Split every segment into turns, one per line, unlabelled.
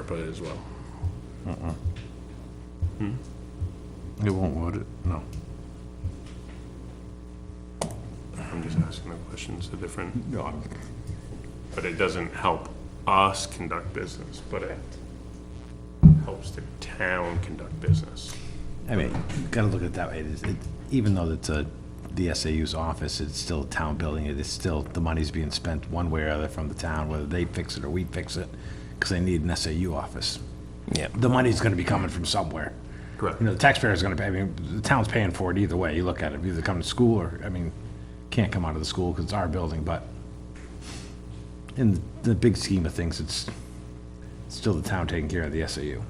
put it as well.
It won't, would it? No.
I'm just asking the questions a different,
No, I'm-
but it doesn't help us conduct business, but it helps the town conduct business.
I mean, you gotta look at it that way. It is, it, even though it's a, the SAU's office, it's still a town building. It is still, the money's being spent one way or other from the town, whether they fix it or we fix it, because they need an SAU office.
Yeah.
The money's gonna be coming from somewhere.
Correct.
You know, the taxpayer's gonna pay, I mean, the town's paying for it either way. You look at it, either come to school or, I mean, can't come out of the school because it's our building, but in the big scheme of things, it's still the town taking care of the SAU.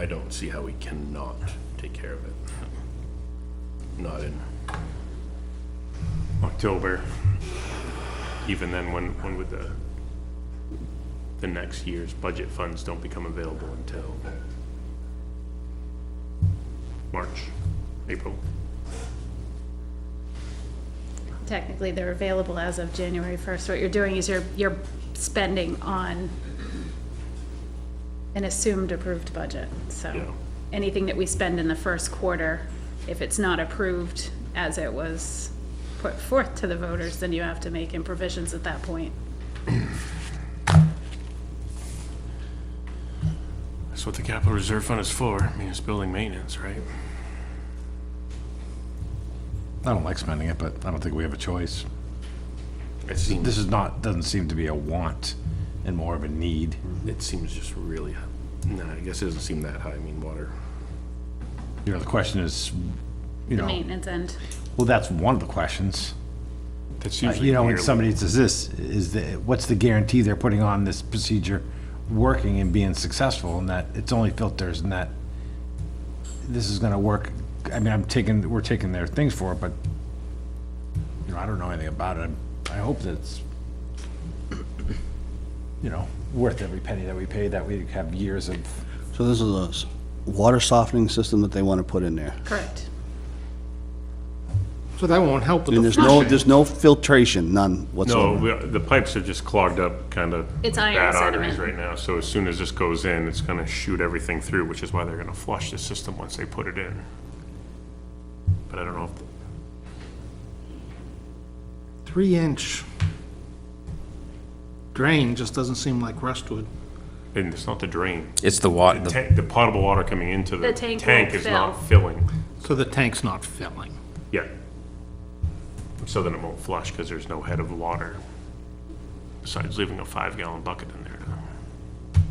I don't see how we cannot take care of it. Not in October. Even then, when, when would the, the next year's budget funds don't become available until March, April?
Technically, they're available as of January 1st. What you're doing is you're, you're spending on an assumed approved budget,
Yeah.
so. Anything that we spend in the first quarter, if it's not approved as it was put forth to the voters, then you have to make in provisions at that point.
That's what the capital reserve fund is for. I mean, it's building maintenance, right?
I don't like spending it, but I don't think we have a choice.
It seems,
This is not, doesn't seem to be a want and more of a need.
it seems just really, no, I guess it doesn't seem that high. I mean, water.
You know, the question is, you
The
know,
maintenance end,
well, that's one of the questions.
That's
Uh, You know, when somebody says this, is the, what's the guarantee they're putting on this procedure working and being successful and that it's only filters and that this is gonna work? I mean, I'm taking, we're taking their things for it, but, you know, I don't know anything about it. I hope that's, you know, worth every penny that we pay, that we have years of
So this is a s- water softening system that they want to put in there.
correct.
So that won't help
And
with the
there's no,
flushing.
there's no filtration, none
No,
whatsoever.
we- the pipes are just clogged up, kind of.
It's iron
Bad
sediment.
arteries right now, so as soon as this goes in, it's gonna shoot everything through, which is why they're gonna flush the system once they put it in. But I don't know if,
Three-inch drain just doesn't seem like Rustwood.
and it's not the drain.
It's the water,
The
the
tank, the potable water coming into the
The tank
tank
won't
is not
fill.
filling
So the tank's not filling.
yet. So then it won't flush, because there's no head of water, besides leaving a five-gallon bucket in there.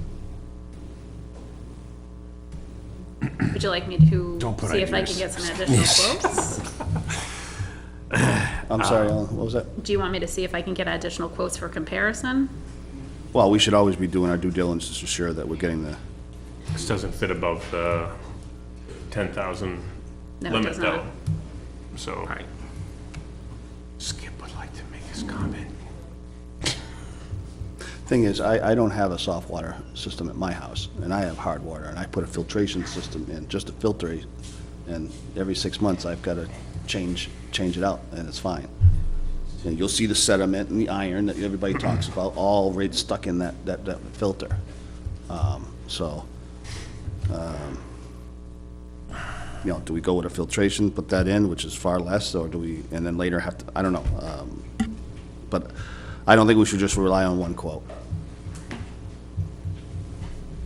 Would you like me to
Don't put
see if I can get
ideas.
some additional quotes?
I'm sorry, Alan, what was that?
Do you want me to see if I can get additional quotes for comparison?
Well, we should always be doing our due diligence to ensure that we're getting the,
This doesn't fit above the ten thousand
No, it
limit
does not.
though. So. Skip would like to make his comment.
thing is, I, I don't have a soft water system at my house, and I have hard water, and I put a filtration system in, just to filter it. And every six months, I've got to change, change it out, and it's fine. And you'll see the sediment and the iron that everybody talks about, all right stuck in that, that, that filter. Um, So, um, you know, do we go with a filtration, put that in, which is far less, or do we, and then later have to, I don't know. um, But I don't think we should just rely on one quote.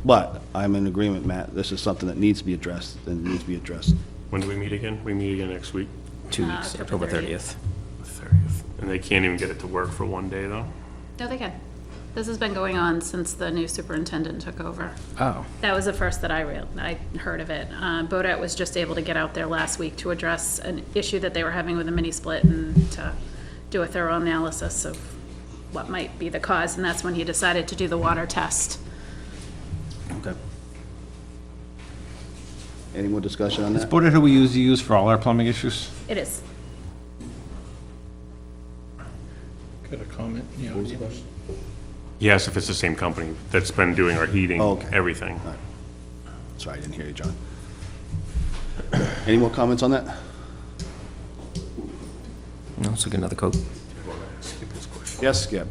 But I'm in agreement, Matt, this is something that needs to be addressed, and needs to be addressed.
When do we meet again? We meet again next week,
two
Uh,
weeks,
October
October
30th.
thirtieth.
the thirtieth. And they can't even get it to work for one day though.
No, they can. This has been going on since the new superintendent took over.
Oh.
That was the first that I real, I heard of it. Uh, Bodat was just able to get out there last week to address an issue that they were having with a mini split and to do a thorough analysis of what might be the cause, and that's when he decided to do the water test.
Okay. Any more discussion on
Is
that?
Board who we usually use for all our plumbing issues?
It is.
Got a comment, yeah.
Yes, if it's the same company that's been doing our heating,
Oh, okay.
everything.
Sorry, I didn't hear you, John. Any more comments on that?
No, let's look at another quote.
Yes, Skip?